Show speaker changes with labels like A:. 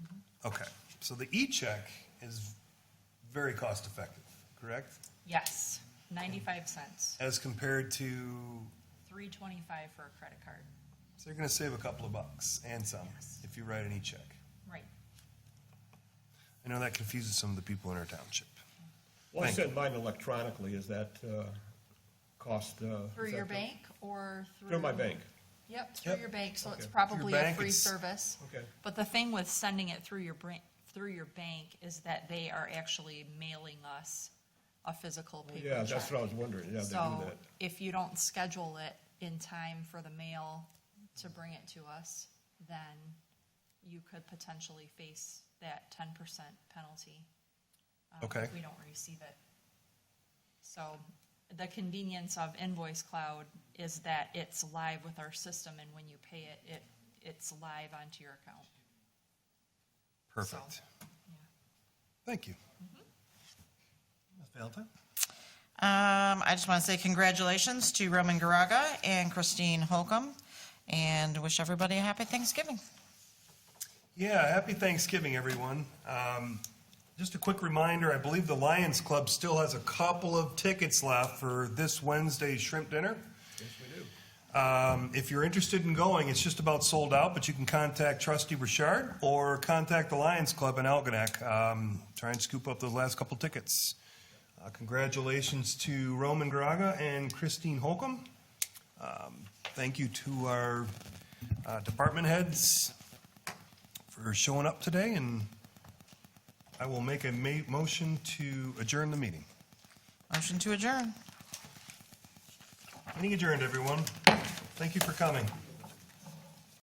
A: Okay, so the e-check is very cost-effective, correct?
B: Yes, ninety-five cents,
A: As compared to,
B: three twenty-five for a credit card.
A: so you're gonna save a couple of bucks and some
B: Yes.
A: if you write an e-check.
B: Right.
A: I know that confuses some of the people in our township.
C: Well, I
A: Thank
C: send mine electronically, is that uh, cost? uh,
B: Through
C: is
B: your
C: that-
B: bank or through?
C: Through my bank.
B: Yep, through
A: Yep.
B: your bank, so it's
C: Okay.
B: probably a
A: bank,
B: free
A: it's-
B: service.
C: Okay.
B: But the thing with sending it through your bran, through your bank is that they are actually mailing us a physical paper
C: Yeah, that's
B: check.
C: what I was wondering, yeah, they do
B: So
C: that.
B: if you don't schedule it in time for the mail to bring it to us, then you could potentially face that ten percent penalty. um, if
A: Okay.
B: We don't receive it. So the convenience of Invoice Cloud is that it's live with our system and when you pay it, it, it's live onto your account.
A: Perfect. Thank you.
B: Mm-hmm.
A: Ms. Valentine?
D: Um, I just want to say congratulations to Roman Garaga and Christine Holcomb, and wish everybody a happy Thanksgiving.
A: Yeah, happy Thanksgiving, everyone. Um, Just a quick reminder, I believe the Lions Club still has a couple of tickets left for this Wednesday's shrimp dinner. Yes, we do. If you're interested in going, it's just about sold out, but you can contact trustee Richard or contact the Lions Club in Algonac. Um, Try and scoop up those last couple tickets. Uh, Congratulations to Roman Graga and Christine Holcomb. Um, Thank you to our uh, department heads, for showing up today, and I will make a ma- motion to adjourn the meeting.
D: Motion to adjourn.
A: Meeting adjourned, everyone. Thank you for coming.